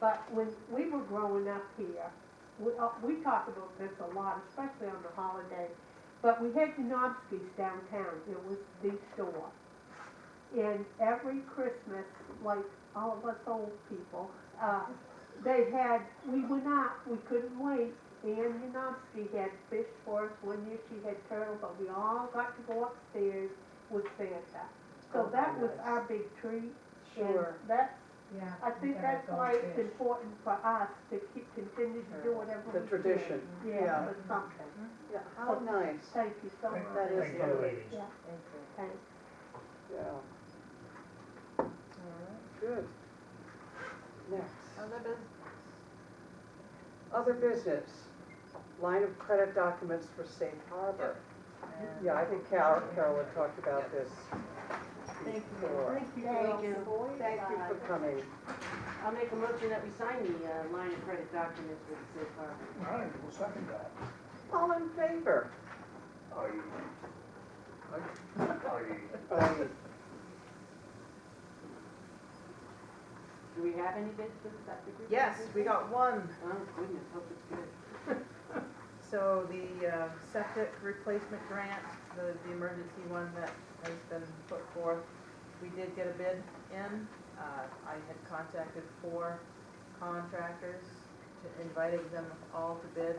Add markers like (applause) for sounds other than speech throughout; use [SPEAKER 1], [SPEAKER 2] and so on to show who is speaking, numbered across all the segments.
[SPEAKER 1] But when we were growing up here, we, uh, we talked about this a lot, especially on the holiday. But we had Janowski's downtown, it was the store. And every Christmas, like all of us old people, uh, they had, we went out, we couldn't wait. Ann Janowski had fish for us, one year she had turtle, but we all got to go upstairs with Santa. So
[SPEAKER 2] Oh,
[SPEAKER 1] that was
[SPEAKER 2] nice.
[SPEAKER 1] our big treat.
[SPEAKER 2] Sure.
[SPEAKER 1] And that's
[SPEAKER 3] Yeah.
[SPEAKER 1] I think that's why it's important for us to keep, continue to do whatever we
[SPEAKER 2] The
[SPEAKER 1] can.
[SPEAKER 2] tradition,
[SPEAKER 1] Yeah,
[SPEAKER 2] yeah.
[SPEAKER 1] for something.
[SPEAKER 2] Yeah, how nice,
[SPEAKER 1] Thank you so much.
[SPEAKER 4] Thank-
[SPEAKER 2] That is
[SPEAKER 4] thank you,
[SPEAKER 2] lovely.
[SPEAKER 4] ladies.
[SPEAKER 1] Yeah, thanks.
[SPEAKER 2] yeah, good. Next, other business, line of credit documents for safe harbor. Yeah, I think Carol, Carol had talked about this
[SPEAKER 5] Thank
[SPEAKER 2] before.
[SPEAKER 1] you.
[SPEAKER 5] Thank you.
[SPEAKER 2] Thank you for coming.
[SPEAKER 5] I'll make a motion that we sign the uh, line of credit documents with the safe harbor.
[SPEAKER 4] All right, we'll second that.
[SPEAKER 2] All in favor?
[SPEAKER 4] Aye. Aye.
[SPEAKER 2] Aye.
[SPEAKER 5] Do we have any bids for the septic? group?
[SPEAKER 6] Yes, we got one.
[SPEAKER 5] Oh, goodness, hope it's good.
[SPEAKER 6] So the uh, septic replacement grant, the, the emergency one that has been put forth, we did get a bid in. Uh, I had contacted four contractors, to- invited them all to bid.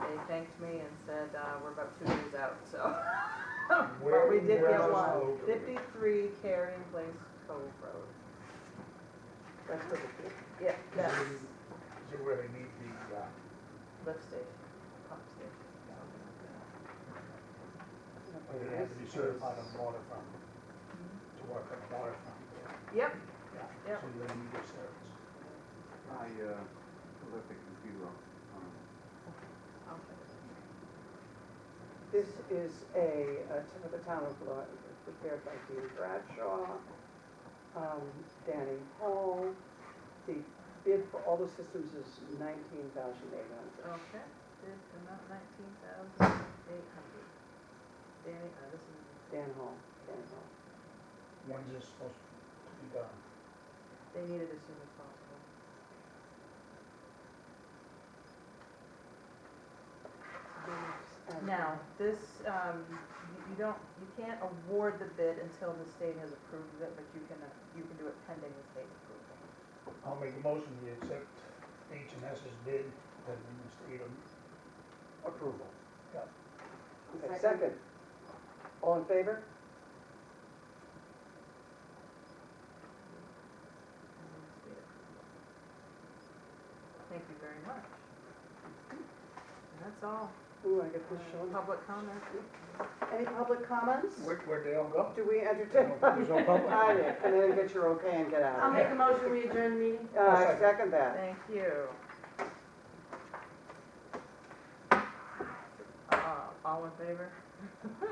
[SPEAKER 6] They thanked me and said, uh, we're about two years out, so. (laughs) But we did
[SPEAKER 4] Where
[SPEAKER 6] get
[SPEAKER 4] was
[SPEAKER 6] one.
[SPEAKER 4] the-
[SPEAKER 6] Fifty-three Carrying Place Cove Road.
[SPEAKER 2] That's for the,
[SPEAKER 6] Yeah, that's
[SPEAKER 4] Is it where they meet the, uh,
[SPEAKER 6] lift station, pump station.
[SPEAKER 4] where they have to be certified on water from, to work on the water from?
[SPEAKER 6] Yep,
[SPEAKER 4] Yeah,
[SPEAKER 6] Mm-hmm. Yep.
[SPEAKER 4] so you're gonna need your service.
[SPEAKER 7] I uh, left the computer on. on.
[SPEAKER 6] okay.
[SPEAKER 2] This is a, uh, to the town of Lo- prepared by Dean Bradshaw, um, Danny Hall. The bid for all the systems is nineteen thousand eight hundred.
[SPEAKER 6] Okay, bid amount nineteen thousand eight hundred. Danny, uh, this is,
[SPEAKER 2] Dan Hall, Dan Hall.
[SPEAKER 4] When's this supposed to be done?
[SPEAKER 6] they need it as soon as possible.
[SPEAKER 2] And-
[SPEAKER 6] Now, this, um, you- you don't, you can't award the bid until the state has approved of it, but you can, uh, you can do it pending the state approval.
[SPEAKER 4] I'll make a motion to accept H and S's bid, and the state of approval.
[SPEAKER 2] Okay, Second. All in favor?
[SPEAKER 6] pending the state approval. Thank you very much. And that's all.
[SPEAKER 2] Ooh, I get this shown.
[SPEAKER 6] Public comment?
[SPEAKER 2] Any public comments?
[SPEAKER 4] Where, where'd they
[SPEAKER 6] (laughs)
[SPEAKER 4] all go?
[SPEAKER 2] Do we
[SPEAKER 4] (laughs)
[SPEAKER 2] entertain?
[SPEAKER 4] There's no public?
[SPEAKER 2] I did, and then get your okay and get
[SPEAKER 5] I'll
[SPEAKER 2] out.
[SPEAKER 5] make a motion, we adjourn the meeting.
[SPEAKER 2] Uh, I second that.
[SPEAKER 6] Thank you. Uh, all in favor? (laughs)